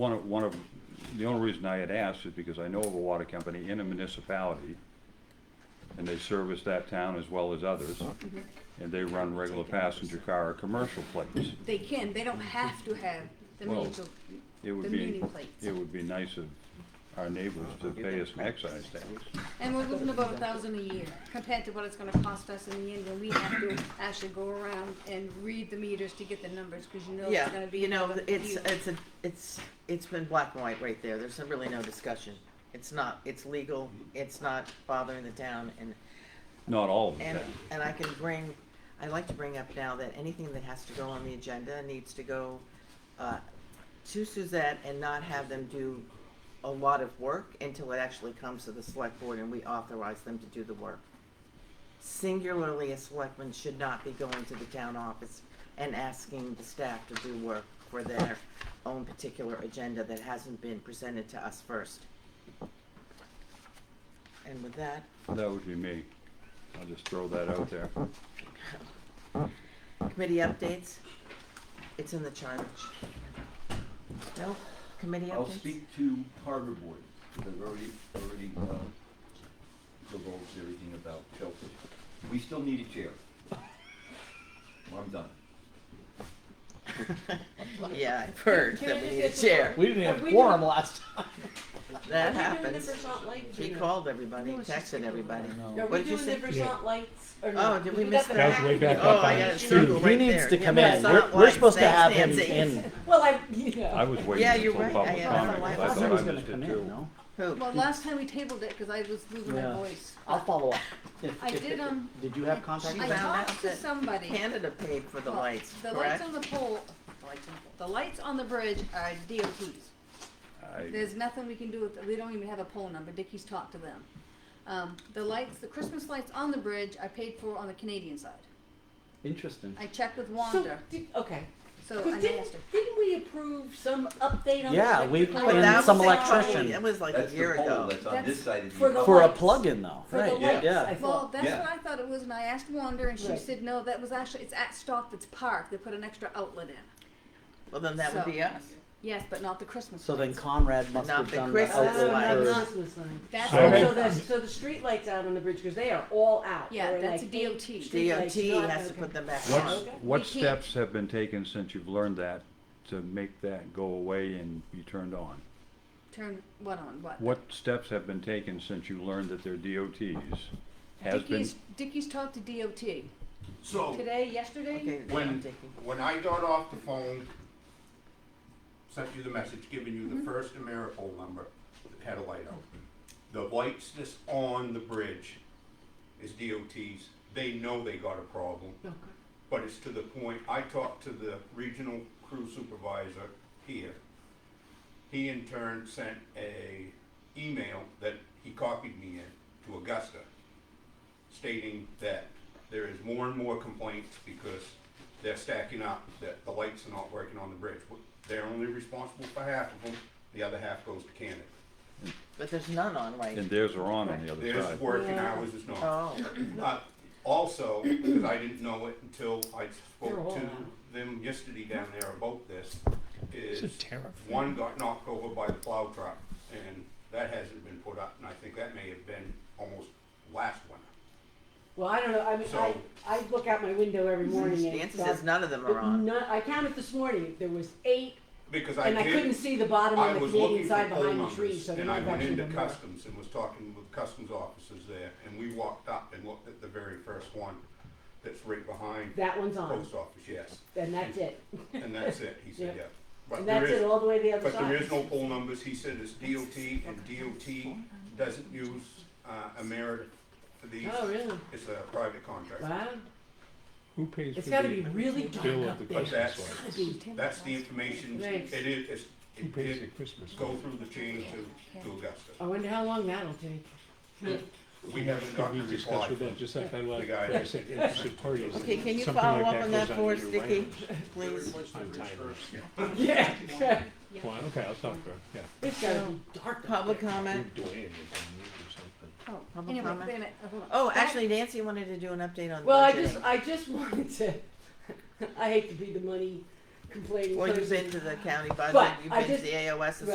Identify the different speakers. Speaker 1: One of, one of, the only reason I had asked is because I know of a water company in a municipality, and they service that town as well as others, and they run regular passenger car or commercial plates.
Speaker 2: They can, they don't have to have the
Speaker 1: Well,
Speaker 2: municipal,
Speaker 1: It
Speaker 2: The
Speaker 1: would be,
Speaker 2: meeting plates.
Speaker 1: it would be nice of our neighbors to pay us an excise tax.
Speaker 2: and we're losing about a thousand a year compared to what it's gonna cost us in the end when we have to actually go around and read the meters to get the numbers, cause you know it's
Speaker 3: Yeah,
Speaker 2: gonna be.
Speaker 3: you know,
Speaker 2: another
Speaker 3: it's,
Speaker 2: huge-
Speaker 3: it's, a it's, it's been black and white right there, there's really no discussion. It's not, it's legal, it's not bothering the town, and,
Speaker 1: Not all of
Speaker 3: and,
Speaker 1: that.
Speaker 3: and I can bring, I like to bring up now that anything that has to go on the agenda needs to go, uh, to Suzette and not have them do a lot of work until it actually comes to the select board and we authorize them to do the work. Singularly, a selectman should not be going to the town office and asking the staff to do work for their own particular agenda that hasn't been presented to us first. And with that,
Speaker 1: That would be me. I'll just throw that out there.
Speaker 3: Committee updates? It's in the charge. No, committee updates?
Speaker 4: I'll speak to harbor board, because I've already, already, uh, divulged everything about Chelsea. We still need a chair. I'm done.
Speaker 3: Yeah, I've heard that we need a chair.
Speaker 5: We didn't have
Speaker 6: Have we
Speaker 5: a quorum last time.
Speaker 3: That
Speaker 6: Are we doing the
Speaker 3: happens.
Speaker 6: Versant lights or
Speaker 3: He
Speaker 6: no?
Speaker 3: called everybody,
Speaker 2: No, it's just
Speaker 3: texted everybody.
Speaker 6: Are
Speaker 3: What
Speaker 6: we
Speaker 3: did you
Speaker 6: doing the
Speaker 3: say?
Speaker 5: Yeah.
Speaker 6: Versant lights or no?
Speaker 3: Oh, did we
Speaker 6: got
Speaker 3: miss
Speaker 6: the
Speaker 3: that?
Speaker 5: That was way back
Speaker 3: Oh,
Speaker 5: up
Speaker 3: I
Speaker 5: on
Speaker 3: got a
Speaker 5: it.
Speaker 3: circle
Speaker 5: He
Speaker 3: right
Speaker 5: needs
Speaker 3: there.
Speaker 5: to
Speaker 3: Yeah,
Speaker 5: come in.
Speaker 3: Versant
Speaker 5: We're, we're
Speaker 3: lights.
Speaker 5: supposed to have
Speaker 3: Thanks,
Speaker 5: him
Speaker 3: Nancy.
Speaker 5: in.
Speaker 6: Well, I, you know.
Speaker 1: I was waiting
Speaker 3: Yeah, you're
Speaker 1: until
Speaker 3: right. I
Speaker 1: public
Speaker 3: had- I
Speaker 1: comment,
Speaker 3: thought
Speaker 1: 'cause
Speaker 3: I
Speaker 1: I
Speaker 3: was
Speaker 1: thought I missed it too.
Speaker 3: Who?
Speaker 2: Well, last time we tabled it, cause I was losing my
Speaker 5: Yeah.
Speaker 2: voice.
Speaker 5: I'll follow up. If-
Speaker 2: I
Speaker 5: if-
Speaker 2: did, um,
Speaker 5: Did you have contact?
Speaker 3: She
Speaker 2: I
Speaker 5: with him?
Speaker 3: found out
Speaker 2: talked to
Speaker 3: that
Speaker 2: somebody.
Speaker 3: Canada paid for the
Speaker 2: Well,
Speaker 3: lights,
Speaker 2: The lights
Speaker 3: correct?
Speaker 2: on the pole, the lights on the pole- the lights on the bridge are DOTs.
Speaker 1: I,
Speaker 2: There's nothing we can do with, we don't even have a poll number, Dickie's talked to them. Um, the lights, the Christmas lights on the bridge are paid for on the Canadian side.
Speaker 5: Interesting.
Speaker 2: I checked with
Speaker 6: So,
Speaker 2: Wanda,
Speaker 6: did, okay.
Speaker 2: so
Speaker 6: But
Speaker 2: I
Speaker 6: didn't,
Speaker 2: asked her.
Speaker 6: didn't we approve some update on the?
Speaker 5: Yeah, we
Speaker 6: electric
Speaker 5: put
Speaker 6: lights?
Speaker 3: But
Speaker 5: in
Speaker 3: that
Speaker 5: some
Speaker 3: was like
Speaker 5: electrician.
Speaker 3: probably- It was like a
Speaker 4: That's
Speaker 3: year
Speaker 4: the pole
Speaker 3: ago.
Speaker 4: that's on this
Speaker 2: That's
Speaker 4: side of
Speaker 6: for
Speaker 4: the.
Speaker 6: the-
Speaker 5: For a
Speaker 6: lights.
Speaker 5: plug-in though,
Speaker 6: For the
Speaker 5: right?
Speaker 4: lights.
Speaker 5: Yeah.
Speaker 2: Well,
Speaker 6: thought.
Speaker 2: that's
Speaker 4: Yeah.
Speaker 2: what I thought it was, and I asked Wanda, and she
Speaker 6: Right.
Speaker 2: said, no, that was actually, it's at Stock that's parked, they put an extra outlet in.
Speaker 3: Well, then that would
Speaker 2: So-
Speaker 3: be us.
Speaker 2: Yes, but not the Christmas
Speaker 5: So then
Speaker 2: lights.
Speaker 5: Conrad must
Speaker 3: Not
Speaker 5: have
Speaker 3: the
Speaker 5: done
Speaker 3: Christmas
Speaker 5: that
Speaker 6: Oh, not
Speaker 3: lights.
Speaker 5: outlet
Speaker 3: Not-
Speaker 5: first.
Speaker 6: Christmas lights.
Speaker 2: That's,
Speaker 5: So-
Speaker 6: So
Speaker 2: what-
Speaker 5: Okay.
Speaker 6: that's, so the street lights out on the bridge, cause they are all out.
Speaker 2: yeah,
Speaker 6: They're
Speaker 2: that's
Speaker 6: like
Speaker 2: DOT.
Speaker 6: eight street lights,
Speaker 3: DOT
Speaker 6: not-
Speaker 3: has to
Speaker 6: okay.
Speaker 3: put them back
Speaker 1: What's-
Speaker 3: on.
Speaker 6: Okay.
Speaker 1: what
Speaker 2: We can't-
Speaker 1: steps have been taken since you've learned that to make that go away and be turned on?
Speaker 2: Turn, what on, what?
Speaker 1: What steps have been taken since you learned that they're DOTs? Has been,
Speaker 2: Dickie's, Dickie's talked to DOT,
Speaker 7: So,
Speaker 2: today, yesterday,
Speaker 3: Okay,
Speaker 7: When-
Speaker 3: I'm taking-
Speaker 7: when I got off the phone, sent you the message giving you
Speaker 3: Mm-hmm.
Speaker 7: the first AmeriPole number that had a light out. The lights that's on the bridge is DOT's. They know they got a problem. But it's to the point, I talked to the regional crew supervisor here. He in turn sent a email that he copied me in to Augusta stating that there is more and more complaints because they're stacking up, that the lights are not working on the bridge. They're only responsible for half of them, the other half goes to Canada.
Speaker 3: But there's none on right.
Speaker 1: and theirs are on on the other
Speaker 7: There's
Speaker 1: side.
Speaker 7: working
Speaker 6: Yeah.
Speaker 7: hours is not.
Speaker 3: Oh,
Speaker 7: Uh, Also, because I didn't know it until I
Speaker 6: You're a
Speaker 7: spoke
Speaker 6: whole
Speaker 7: to
Speaker 6: lot.
Speaker 7: them yesterday down there about this,
Speaker 5: This
Speaker 7: is
Speaker 5: is terrifying.
Speaker 7: one got knocked over by the plow truck, and that hasn't been put up, and I think that may have been almost last winter.
Speaker 6: Well, I don't know, I mean, I,
Speaker 7: So-
Speaker 6: I look out my window every morning and. it's
Speaker 3: Nancy says
Speaker 6: dark.
Speaker 3: none of them
Speaker 6: But
Speaker 3: are on.
Speaker 6: none- I counted this morning, there was eight
Speaker 7: Because I
Speaker 6: And I
Speaker 7: did.
Speaker 6: couldn't see the bottom
Speaker 7: I
Speaker 6: of the
Speaker 7: was
Speaker 6: Canadian
Speaker 7: looking for
Speaker 6: side
Speaker 7: poll
Speaker 6: behind the tree,
Speaker 7: numbers,
Speaker 6: so there
Speaker 7: and I
Speaker 6: might
Speaker 7: went
Speaker 6: actually
Speaker 7: into
Speaker 6: been more.
Speaker 7: customs and was talking with customs officers there, and we walked up and looked at the very first one that's right behind the
Speaker 6: That one's on,
Speaker 7: post office, yes.
Speaker 6: and that's it.
Speaker 7: And that's it, he said,
Speaker 6: Yeah.
Speaker 7: yeah.
Speaker 6: And
Speaker 7: But there
Speaker 6: that's it
Speaker 7: is,
Speaker 6: all the way to the other
Speaker 7: but
Speaker 6: side.
Speaker 7: there is no poll numbers, he said it's DOT, and DOT doesn't use, uh, Amerit for these.
Speaker 6: Oh, really?
Speaker 7: It's a private contract.
Speaker 6: Wow.
Speaker 8: Who pays
Speaker 6: It's
Speaker 8: for
Speaker 6: gotta be
Speaker 8: the
Speaker 6: really dark
Speaker 8: bill of the
Speaker 6: up there.
Speaker 8: Christmas
Speaker 6: It's
Speaker 7: That's-
Speaker 8: lights?
Speaker 6: gotta be.
Speaker 7: That's the information, it
Speaker 6: Thanks.
Speaker 7: is, it's,
Speaker 8: Who
Speaker 7: it
Speaker 8: pays the
Speaker 7: did
Speaker 8: Christmas
Speaker 7: go
Speaker 8: lights?
Speaker 7: through the chain to, to Augusta.
Speaker 6: I wonder how long that'll take.
Speaker 7: We haven't
Speaker 8: Could
Speaker 7: gotten
Speaker 8: we
Speaker 7: a reply
Speaker 8: discuss
Speaker 7: from
Speaker 8: with them, just like I
Speaker 7: The
Speaker 8: like,
Speaker 7: guy-
Speaker 8: I said, interested parties.
Speaker 3: Okay, can you
Speaker 8: something
Speaker 3: follow
Speaker 8: like
Speaker 3: up on that
Speaker 8: goes
Speaker 3: for us,
Speaker 8: year
Speaker 3: Dicky,
Speaker 8: round.
Speaker 3: please?
Speaker 8: I'm tired of it.
Speaker 6: Yeah.
Speaker 8: Well, okay, I'll talk to her, yeah.
Speaker 3: Uh,
Speaker 6: It's gotta be dark. up
Speaker 3: Public
Speaker 8: We're
Speaker 3: comment?
Speaker 8: doing it, we're
Speaker 3: Oh,
Speaker 2: anyway,
Speaker 3: public
Speaker 2: wait a
Speaker 3: comment.
Speaker 2: minute, hold on.
Speaker 3: Oh,
Speaker 2: Back-
Speaker 3: actually Nancy wanted to do an update on
Speaker 6: Well, I
Speaker 3: budgeting.
Speaker 6: just, I just wanted to, I hate to be the money complaining.
Speaker 3: Well,
Speaker 6: but-
Speaker 3: you've been to the county budget,
Speaker 6: But
Speaker 3: you've
Speaker 6: I
Speaker 3: been to
Speaker 6: just-
Speaker 3: the AOS